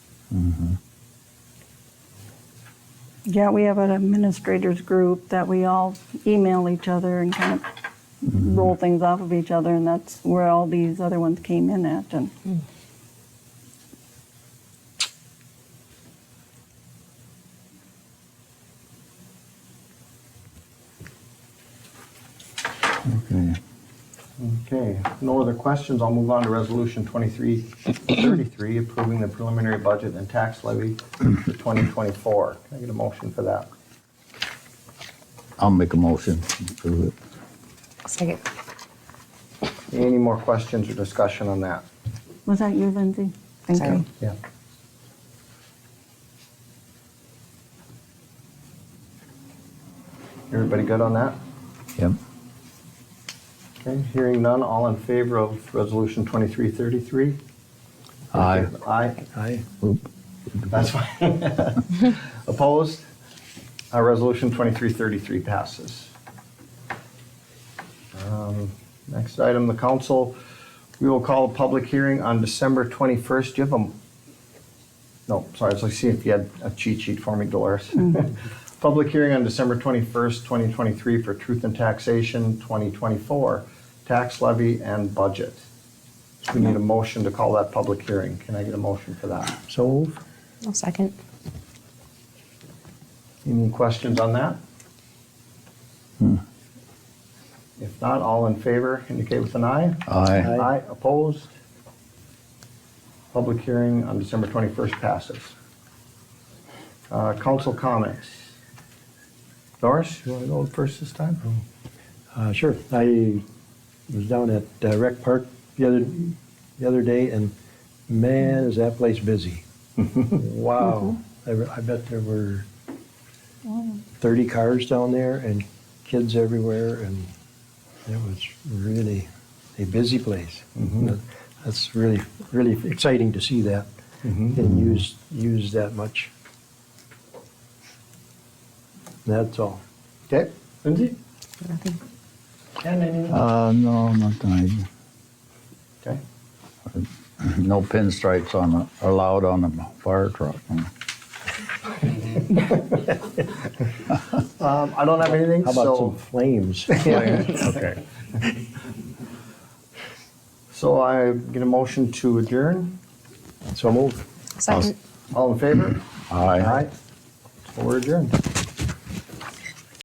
Yeah, we have an administrators group that we all email each other and kind of roll things off of each other, and that's where all these other ones came in at. And Okay. Okay, no other questions, I'll move on to resolution 2333, approving the preliminary budget and tax levy for 2024. Can I get a motion for that? I'll make a motion to approve it. Second. Any more questions or discussion on that? was that you, Lindsay? Thank Sorry. you. Yeah. Everybody good on that? Yep. Okay, hearing none, all in favor of resolution 2333? Aye. Aye. Aye. Oop. That's fine. Opposed? Uh, Resolution 2333 passes. Um, Next item, the council, we will call a public hearing on December 21st. Do you have a, no, sorry, I was like, see if you had a cheat sheet for me, Dolores. Public hearing on December 21st, 2023 for truth and taxation, 2024, tax levy and budget. So We need a motion to call that public hearing. Can I get a motion for that? So moved. I'll second. Any questions on that? If not, all in favor indicate with an eye. Aye. Aye, opposed? Public hearing on December 21st passes. Uh, Council comments. Doris, you want to go first this time? Hmm. Uh, Sure. I was down at uh, Rec Park the other, the other day, and man, is that place busy. Wow. I re- I bet there were 30 cars down there and kids everywhere, and it was really a busy place. That's really, really exciting to see that and used, used that much. That's all. Okay, Lindsay? Nothing. Ken, anything? Uh, no, not tonight. Okay, No pinstripes on, a- allowed on a fire truck. Um, I don't have anything, How about so, some flames? Okay. so I get a motion to adjourn. So move. Second. All in favor? Aye. Aye. So We're adjourned.